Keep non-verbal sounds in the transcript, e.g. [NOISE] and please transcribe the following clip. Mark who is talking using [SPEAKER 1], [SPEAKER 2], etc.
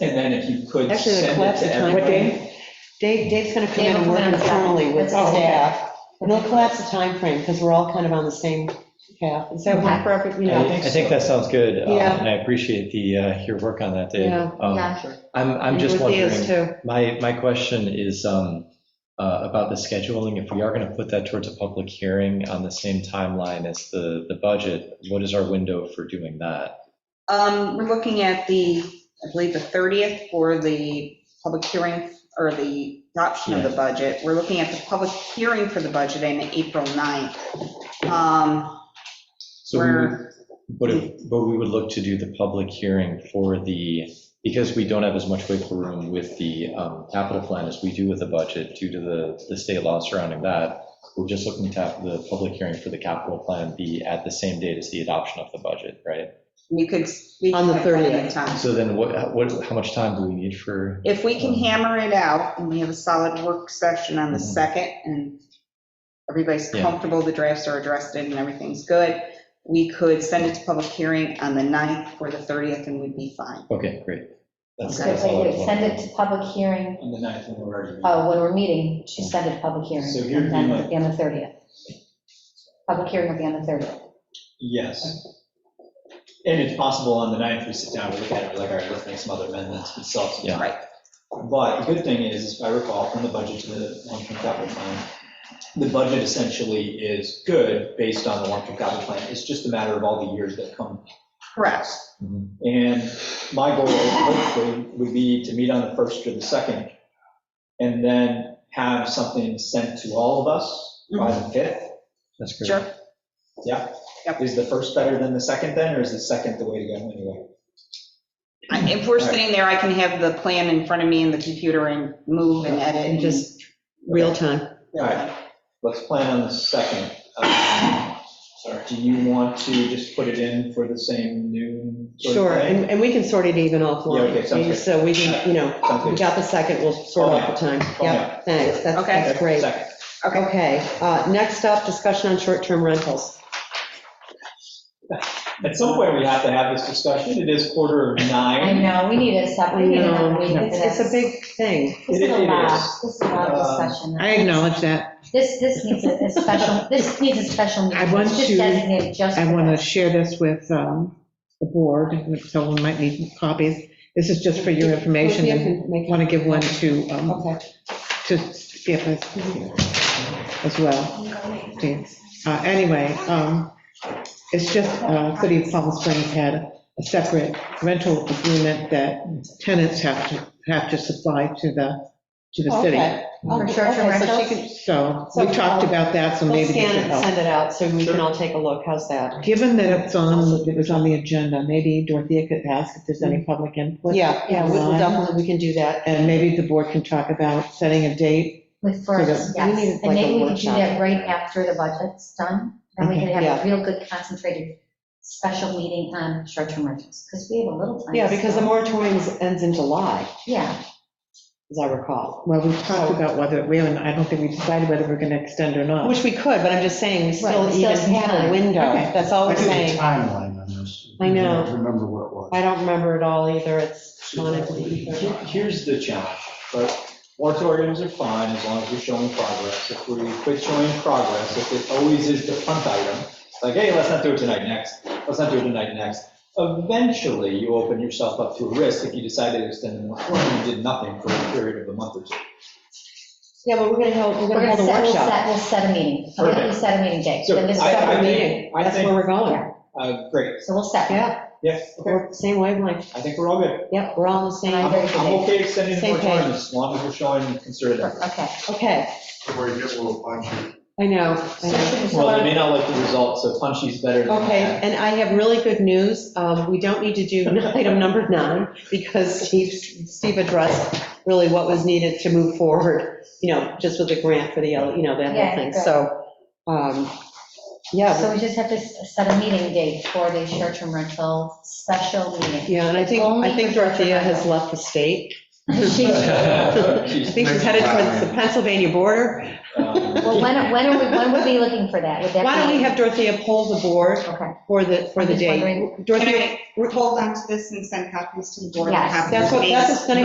[SPEAKER 1] And then if you could
[SPEAKER 2] Actually, the
[SPEAKER 1] send it
[SPEAKER 2] collapse of
[SPEAKER 1] to
[SPEAKER 2] time.
[SPEAKER 1] everybody.
[SPEAKER 2] Dave, Dave's gonna come
[SPEAKER 3] Dave
[SPEAKER 2] in and
[SPEAKER 3] will come
[SPEAKER 2] work
[SPEAKER 3] in and talk.
[SPEAKER 2] internally with
[SPEAKER 3] Oh, okay.
[SPEAKER 2] staff, and they'll collapse the timeframe, because we're all kind of on the same path. Is that one for every, you know?
[SPEAKER 1] think
[SPEAKER 4] I think that sounds good, uh,
[SPEAKER 2] Yeah.
[SPEAKER 4] and I appreciate the, uh, your work on that, Dave.
[SPEAKER 2] Yeah.
[SPEAKER 5] Oh,
[SPEAKER 4] Um,
[SPEAKER 3] Yeah.
[SPEAKER 4] I'm, I'm just
[SPEAKER 2] And with Leah's
[SPEAKER 4] wondering,
[SPEAKER 2] too.
[SPEAKER 4] my, my question is um, uh, about the scheduling. If we are going to put that towards a public hearing on the same timeline as the, the budget, what is our window for doing that?
[SPEAKER 3] Um, we're looking at the, I believe, the 30th for the public hearing or the adoption of the budget. We're looking at the public hearing for the budget on April 9th. Um,
[SPEAKER 4] So we would-
[SPEAKER 3] we're,
[SPEAKER 4] But, if- but we would look to do the public hearing for the, because we don't have as much wiggle room with the um, capital plan as we do with the budget due to the, the state law surrounding that. We're just looking to have the public hearing for the capital plan be at the same date as the adoption of the budget, right?
[SPEAKER 3] you could speak.
[SPEAKER 2] On the
[SPEAKER 3] at any
[SPEAKER 2] 30th.
[SPEAKER 3] time.
[SPEAKER 4] So then what, what, how much time do we need for,
[SPEAKER 3] If we can hammer it out and we have a solid work session on the
[SPEAKER 4] Mhm.
[SPEAKER 3] second and everybody's
[SPEAKER 4] Yeah.
[SPEAKER 3] comfortable, the drafts are addressed and everything's good, we could send it to public hearing on the 9th or the 30th and we'd be fine.
[SPEAKER 4] okay, great. That's-
[SPEAKER 5] So
[SPEAKER 4] that's all
[SPEAKER 5] you
[SPEAKER 4] I was
[SPEAKER 5] send
[SPEAKER 4] wondering.
[SPEAKER 5] it to public hearing,
[SPEAKER 1] On the ninth, when we're already.
[SPEAKER 2] Oh.
[SPEAKER 5] uh, when we're meeting, to send it to public hearing.
[SPEAKER 1] So here would
[SPEAKER 5] And
[SPEAKER 1] be
[SPEAKER 5] then
[SPEAKER 1] my-
[SPEAKER 5] it'll be on the 30th. Public hearing will be on the 30th.
[SPEAKER 1] Yes. And it's possible on the ninth, we sit down, we look at it, we're like, all right, let's make some other amendments, we still have some
[SPEAKER 4] Yeah.
[SPEAKER 1] time. But the good thing is, if I recall, from the budget to the long-term capital plan, the budget essentially is good based on the long-term capital plan. It's just a matter of all the years that come.
[SPEAKER 3] Correct.
[SPEAKER 4] Mhm.
[SPEAKER 1] And my goal hopefully would be to meet on the first or the second and then have something sent to all of us by
[SPEAKER 2] Mm-hmm.
[SPEAKER 1] the fifth.
[SPEAKER 4] That's great.
[SPEAKER 3] Sure.
[SPEAKER 1] Yeah.
[SPEAKER 3] Yep.
[SPEAKER 1] Is the first better than the second then, or is the second the way to go anyway?
[SPEAKER 3] I- If we're
[SPEAKER 1] Right.
[SPEAKER 3] sitting there, I can have the plan in front of me and the computer and move and edit
[SPEAKER 2] And
[SPEAKER 3] and just.
[SPEAKER 2] just real time.
[SPEAKER 1] All right, let's plan on the second. Um, Do you want to just put it in for the same noon? sort of
[SPEAKER 2] Sure,
[SPEAKER 1] thing?
[SPEAKER 2] and, and we can sort it even offline.
[SPEAKER 1] Yeah, okay, sounds good.
[SPEAKER 2] So we can, you know,
[SPEAKER 1] Sounds
[SPEAKER 2] we
[SPEAKER 1] good.
[SPEAKER 2] got the second, we'll sort out the time.
[SPEAKER 1] Oh,
[SPEAKER 2] Yep,
[SPEAKER 1] yeah.
[SPEAKER 2] thanks, that's,
[SPEAKER 3] Okay.
[SPEAKER 2] that's great.
[SPEAKER 1] Second.
[SPEAKER 3] Okay,
[SPEAKER 2] Okay, uh, next up, discussion on short-term rentals.
[SPEAKER 1] At some point, we have to have this discussion. It is quarter of
[SPEAKER 5] I
[SPEAKER 1] nine.
[SPEAKER 5] know, we need a separate, we need another week for
[SPEAKER 2] It's, it's a
[SPEAKER 5] this.
[SPEAKER 2] big thing.
[SPEAKER 5] This is a
[SPEAKER 1] It is.
[SPEAKER 5] lot, this is a lot of
[SPEAKER 1] Um,
[SPEAKER 5] discussion.
[SPEAKER 6] that.
[SPEAKER 5] This, this needs a a special, this needs a special meeting.
[SPEAKER 6] I want
[SPEAKER 5] It's just
[SPEAKER 6] to-
[SPEAKER 5] designated just.
[SPEAKER 6] I
[SPEAKER 5] for
[SPEAKER 6] want to
[SPEAKER 5] this.
[SPEAKER 6] share this with um, the board, if someone might need copies. This is just for your information, and want to give one to, um,
[SPEAKER 2] Okay.
[SPEAKER 6] to Skip as as well. please. Uh, Anyway, um, it's just, uh, City of Palm Springs had a separate rental agreement that tenants have to, have to supply to the, to the city.
[SPEAKER 2] Okay. Okay,
[SPEAKER 5] short-term
[SPEAKER 2] so she
[SPEAKER 5] rentals?
[SPEAKER 2] can-
[SPEAKER 6] So we talked about that, so
[SPEAKER 2] We'll
[SPEAKER 6] maybe this
[SPEAKER 2] scan
[SPEAKER 6] will
[SPEAKER 2] it and
[SPEAKER 6] help.
[SPEAKER 2] send it out, so we can all take a look, how's that?
[SPEAKER 6] Given that it's on, it was on the agenda, maybe Dorothea could ask if there's any public input.
[SPEAKER 2] Yeah, yeah, we- we'll
[SPEAKER 6] Online.
[SPEAKER 2] definitely, we can do that.
[SPEAKER 6] And maybe the board can talk about setting a date.
[SPEAKER 5] With first,
[SPEAKER 2] We need,
[SPEAKER 5] yes.
[SPEAKER 2] like, a
[SPEAKER 5] And maybe we could do
[SPEAKER 2] workshop. Mhm.
[SPEAKER 5] that right after the budget's done. And we
[SPEAKER 6] Okay,
[SPEAKER 5] could have
[SPEAKER 2] yeah.
[SPEAKER 5] a real good concentrated special meeting on short-term rentals, because we have a little time.
[SPEAKER 2] Yeah, because the
[SPEAKER 5] still.
[SPEAKER 2] moratorium ends in July,
[SPEAKER 5] Yeah,
[SPEAKER 2] as I recall,
[SPEAKER 6] Well, we talked about whether, we haven't, I don't think we decided whether we're going to extend or not.
[SPEAKER 2] which we could, but I'm just saying, we still
[SPEAKER 5] Right, still
[SPEAKER 2] even
[SPEAKER 5] some
[SPEAKER 2] have a
[SPEAKER 5] time.
[SPEAKER 2] window,
[SPEAKER 6] Okay.
[SPEAKER 2] that's all
[SPEAKER 7] I
[SPEAKER 2] we're
[SPEAKER 7] did a
[SPEAKER 2] saying.
[SPEAKER 7] timeline on this.
[SPEAKER 2] I know.
[SPEAKER 7] don't Remember what it was.
[SPEAKER 2] I don't remember it all either, it's gone into the ether.
[SPEAKER 1] Here- Here's the challenge, right? Moratoriums are fine as long as you're showing progress. If we quit showing progress, if it always is the punt item, like, hey, let's not do it tonight, next, let's not do it tonight, next. Eventually, you open yourself up to a risk if you decided to extend the moratorium and did nothing for a period of a month or two.
[SPEAKER 2] Yeah, but we're gonna hold, we're
[SPEAKER 5] we're
[SPEAKER 2] gonna
[SPEAKER 5] gonna
[SPEAKER 2] hold a
[SPEAKER 5] set, we'll
[SPEAKER 2] workshop.
[SPEAKER 5] set, we'll set a meeting. So we'll
[SPEAKER 1] Perfect.
[SPEAKER 5] set a meeting date.
[SPEAKER 1] So
[SPEAKER 5] Then this is
[SPEAKER 1] I- I
[SPEAKER 5] separate
[SPEAKER 2] Separate
[SPEAKER 1] think-
[SPEAKER 5] meeting.
[SPEAKER 2] meeting,
[SPEAKER 1] I
[SPEAKER 2] that's
[SPEAKER 1] think-
[SPEAKER 2] where we're going.
[SPEAKER 5] Yeah,
[SPEAKER 1] Uh, Great,
[SPEAKER 5] So we'll set. that.
[SPEAKER 2] Oh. Yeah,
[SPEAKER 1] yeah, okay.
[SPEAKER 2] we're same wavelength,
[SPEAKER 1] I think we're all good.
[SPEAKER 2] yep, we're all on the
[SPEAKER 1] I'm,
[SPEAKER 2] same,
[SPEAKER 1] I'm okay extending the
[SPEAKER 2] Same page.
[SPEAKER 1] moratorium as long as we're showing concerted effort.
[SPEAKER 5] Okay.
[SPEAKER 2] okay,
[SPEAKER 7] Where you get a little punchy.
[SPEAKER 2] I know, I know.
[SPEAKER 1] Well, they may not like the result, so punchy's better than.
[SPEAKER 2] Okay,
[SPEAKER 1] that.
[SPEAKER 2] and I have really good news. Um, We don't need to do [LAUGHS] item number nine because Steve, Steve addressed really what was needed to move forward, you know, just with the grant for the, you know, that whole
[SPEAKER 5] Yeah,
[SPEAKER 2] thing.
[SPEAKER 5] good.
[SPEAKER 2] So, um, yeah,
[SPEAKER 5] So we just have to s- set a meeting date for the short-term rental special meeting. [LAUGHS]
[SPEAKER 2] yeah, and I think, I think Dorothea has left the state. [LAUGHS]
[SPEAKER 1] [LAUGHS]
[SPEAKER 2] I think she's [LAUGHS] headed towards the Pennsylvania border.
[SPEAKER 5] Well, when, when are we, when would we be looking for that? Would that be?
[SPEAKER 2] Why don't we have Dorothea poll the board
[SPEAKER 5] Okay.
[SPEAKER 2] for the, for
[SPEAKER 5] I'm
[SPEAKER 2] the
[SPEAKER 5] just
[SPEAKER 2] date?
[SPEAKER 5] wondering
[SPEAKER 2] Dorothea,
[SPEAKER 3] Can I hold on to this and send copies to the board? and
[SPEAKER 5] Yes.
[SPEAKER 3] have
[SPEAKER 2] That's
[SPEAKER 3] them
[SPEAKER 2] what- that's
[SPEAKER 3] made
[SPEAKER 2] what's gonna